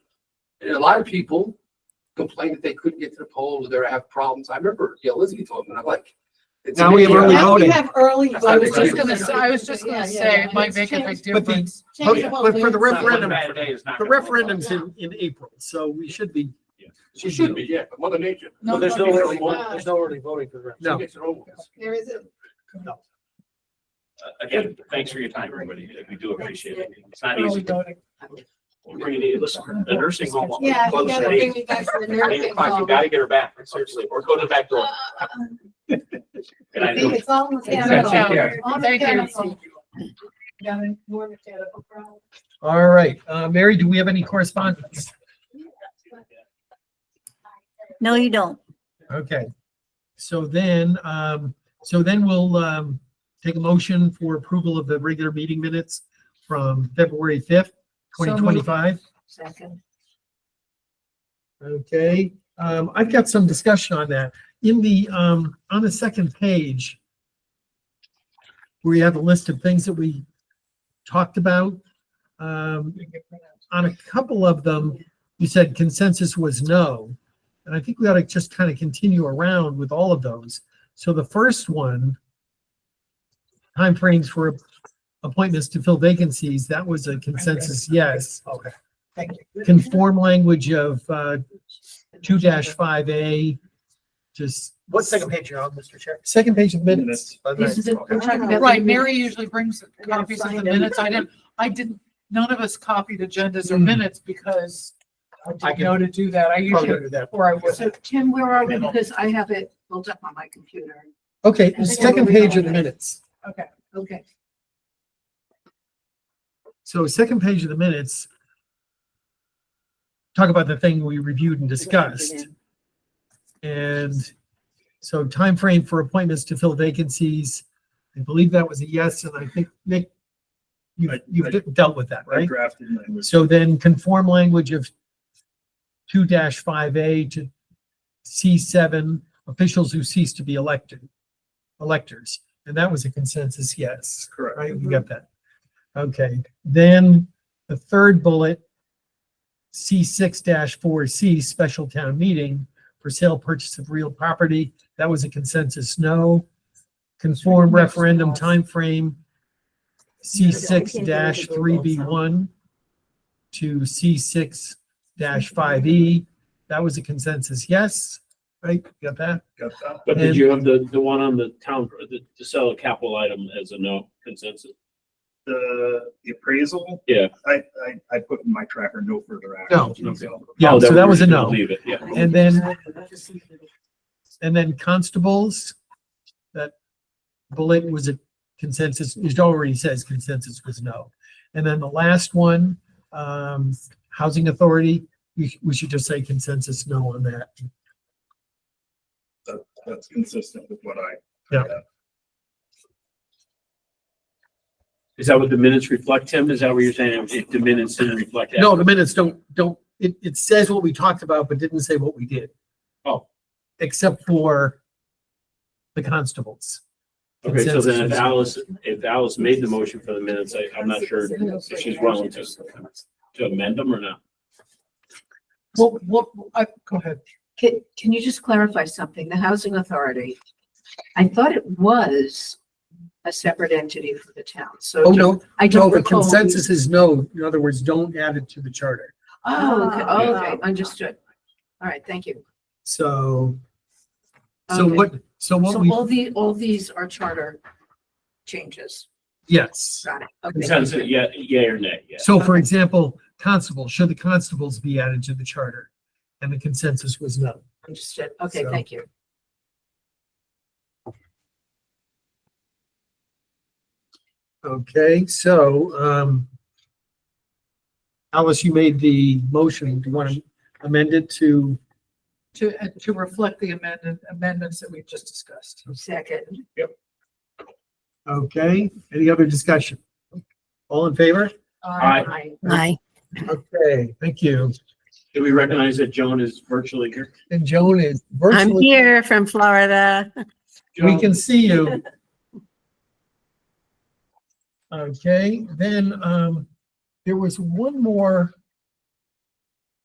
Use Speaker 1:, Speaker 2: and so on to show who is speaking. Speaker 1: And a lot of people complained that they couldn't get to the polls, they have problems. I remember, yeah, Elizabeth told me, and I'm like. it's
Speaker 2: Now we have
Speaker 1: amazing.
Speaker 2: early
Speaker 3: Now we
Speaker 2: voting.
Speaker 3: have early.
Speaker 1: I
Speaker 4: I
Speaker 3: voting.
Speaker 4: was just gonna,
Speaker 1: say-
Speaker 4: s- I was just
Speaker 3: Yeah,
Speaker 4: gonna
Speaker 3: yeah,
Speaker 4: say,
Speaker 3: yeah.
Speaker 4: it might make a
Speaker 3: Change-
Speaker 4: big
Speaker 2: But the-
Speaker 4: difference.
Speaker 3: change
Speaker 2: okay,
Speaker 3: whole
Speaker 2: Oh, but for the
Speaker 3: thing.
Speaker 2: referendum- The
Speaker 3: referendum's
Speaker 2: referendum's
Speaker 3: in-
Speaker 2: in, in April, so we should be,
Speaker 1: She should be, yeah, but Mother Nature.
Speaker 3: No,
Speaker 5: there's
Speaker 3: no,
Speaker 5: no
Speaker 3: no,
Speaker 5: early voting,
Speaker 3: uh,
Speaker 5: there's no early voting for the rest.
Speaker 1: She
Speaker 2: no,
Speaker 1: gets her own.
Speaker 3: There is a,
Speaker 6: Uh, Again, thanks for your time, everybody. We do appreciate it. It's not easy. We're gonna need, listen, the nursing home. won't be
Speaker 3: yeah, you
Speaker 6: closed at
Speaker 3: gotta
Speaker 6: eight.
Speaker 3: bring me back to the
Speaker 6: Eight
Speaker 3: nursing
Speaker 6: o'clock, you
Speaker 3: home. Uh,
Speaker 6: gotta get her back, seriously, or go to the back door. And I know-
Speaker 3: It's all
Speaker 1: Exactly,
Speaker 3: mechanical.
Speaker 1: yeah.
Speaker 3: All
Speaker 4: Thank you.
Speaker 3: mechanical. Got a more mechanical problem.
Speaker 2: all right. Uh, Mary, do we have any correspondence?
Speaker 7: No, you don't.
Speaker 2: Okay. So then, um, so then we'll, um, take a motion for approval of the regular meeting minutes from February fifth,
Speaker 4: So
Speaker 2: twenty
Speaker 4: moved.
Speaker 2: twenty-five.
Speaker 3: Second.
Speaker 2: Okay, um, I've got some discussion on that. In the, um, on the second page, we have a list of things that we talked about. Um, on a couple of them, you said consensus was no. And I think we ought to just kind of continue around with all of those. So the first one, timeframes for appointments to fill vacancies, that was a consensus yes
Speaker 5: Okay, thank you.
Speaker 2: conform language of uh, two five A, just
Speaker 5: What second page you're on, Mr. Chair?
Speaker 2: second page of minutes.
Speaker 5: This is it.
Speaker 4: Right, Mary usually brings
Speaker 3: I gotta
Speaker 4: copies of the
Speaker 3: find 'em.
Speaker 4: minutes. I didn't, I didn't, none of us copied agendas or
Speaker 2: Hmm.
Speaker 4: minutes because I
Speaker 2: I
Speaker 4: didn't
Speaker 2: can-
Speaker 4: know to do that. I usually, or I would.
Speaker 3: So Tim, where are we? Because I have it built up on my computer.
Speaker 2: Okay, the second page of the minutes.
Speaker 4: Okay.
Speaker 3: Okay.
Speaker 2: So second page of the minutes. Talk about the thing we reviewed and discussed. And so time frame for appointments to fill vacancies. I believe that was a yes, and I think Nick, you,
Speaker 8: I- I-
Speaker 2: you've dealt with that,
Speaker 8: I
Speaker 2: right?
Speaker 8: drafted language.
Speaker 2: So then conform language of two five A to C seven, officials who cease to be elected, electors. And that was a consensus, yes,
Speaker 8: Correct.
Speaker 2: right? We got that. Okay, then the third bullet, C six four C, special town meeting for sale, purchase of real property. That was a consensus, no. Conform referendum timeframe, C six three B one to C six five E. That was a consensus, yes, right? You Got that?
Speaker 8: Got that.
Speaker 9: But
Speaker 2: And-
Speaker 9: did you have the, the one on the town, the, to sell a capital item as a no consensus?
Speaker 8: The the appraisal.
Speaker 9: Yeah.
Speaker 8: I, I, I put in my tracker, no further
Speaker 2: No.
Speaker 8: action. So,
Speaker 2: Yeah,
Speaker 9: Oh,
Speaker 2: so that
Speaker 9: we
Speaker 2: was a
Speaker 9: were gonna
Speaker 2: no.
Speaker 9: Leave it, yeah.
Speaker 2: And then, and then constables, that bullet was a consensus, it already says consensus was no. And then the last one, um, housing authority, we, we should just say consensus no on that.
Speaker 8: that- That's consistent with what I.
Speaker 2: Yeah.
Speaker 9: Is that what the minutes reflect, Tim? Is that what you're saying? If the minutes didn't reflect that?
Speaker 2: No, the minutes don't, don't, it, it says what we talked about, but didn't say what we did.
Speaker 9: Oh.
Speaker 2: Except for the constables.
Speaker 9: Okay, so then if
Speaker 2: Consensus.
Speaker 9: Alice, if Alice made the motion for the minutes, I, I'm not sure if she's willing to, to amend them or not.
Speaker 4: Well, what, I, go ahead.
Speaker 3: Can, can you just clarify something? The housing authority, I thought it was a separate entity for the town, so.
Speaker 2: Oh, no,
Speaker 3: I
Speaker 2: no,
Speaker 3: don't
Speaker 2: the
Speaker 3: recall.
Speaker 2: consensus is no. In other words, don't add it to the charter.
Speaker 3: Oh, okay, okay, understood. All right, thank you.
Speaker 2: So, so
Speaker 3: Okay.
Speaker 2: what, so what
Speaker 3: So
Speaker 2: we,
Speaker 3: all the, all these are charter changes.
Speaker 2: yes.
Speaker 3: Got it. Okay.
Speaker 9: Consensus, yeah, yeah or nay, yeah.
Speaker 2: So for example, constable, should the constables be added to the charter? And the consensus was no.
Speaker 3: Understood. Okay,
Speaker 2: So-
Speaker 3: thank you.
Speaker 2: Okay, so, um, Alice, you made the motion. Do you want to amend it to,
Speaker 4: To, uh, to reflect the amendment, amendments that we've just discussed.
Speaker 3: Second.
Speaker 2: okay, any other discussion? All in favor?
Speaker 4: Uh,
Speaker 3: Aye.
Speaker 7: Aye.
Speaker 2: Okay, thank you.
Speaker 9: Do we recognize that Joan is virtually here?
Speaker 2: And Joan is
Speaker 7: I'm
Speaker 2: virtually,
Speaker 7: here from Florida.
Speaker 2: we can see you. Okay, then, um, there was one more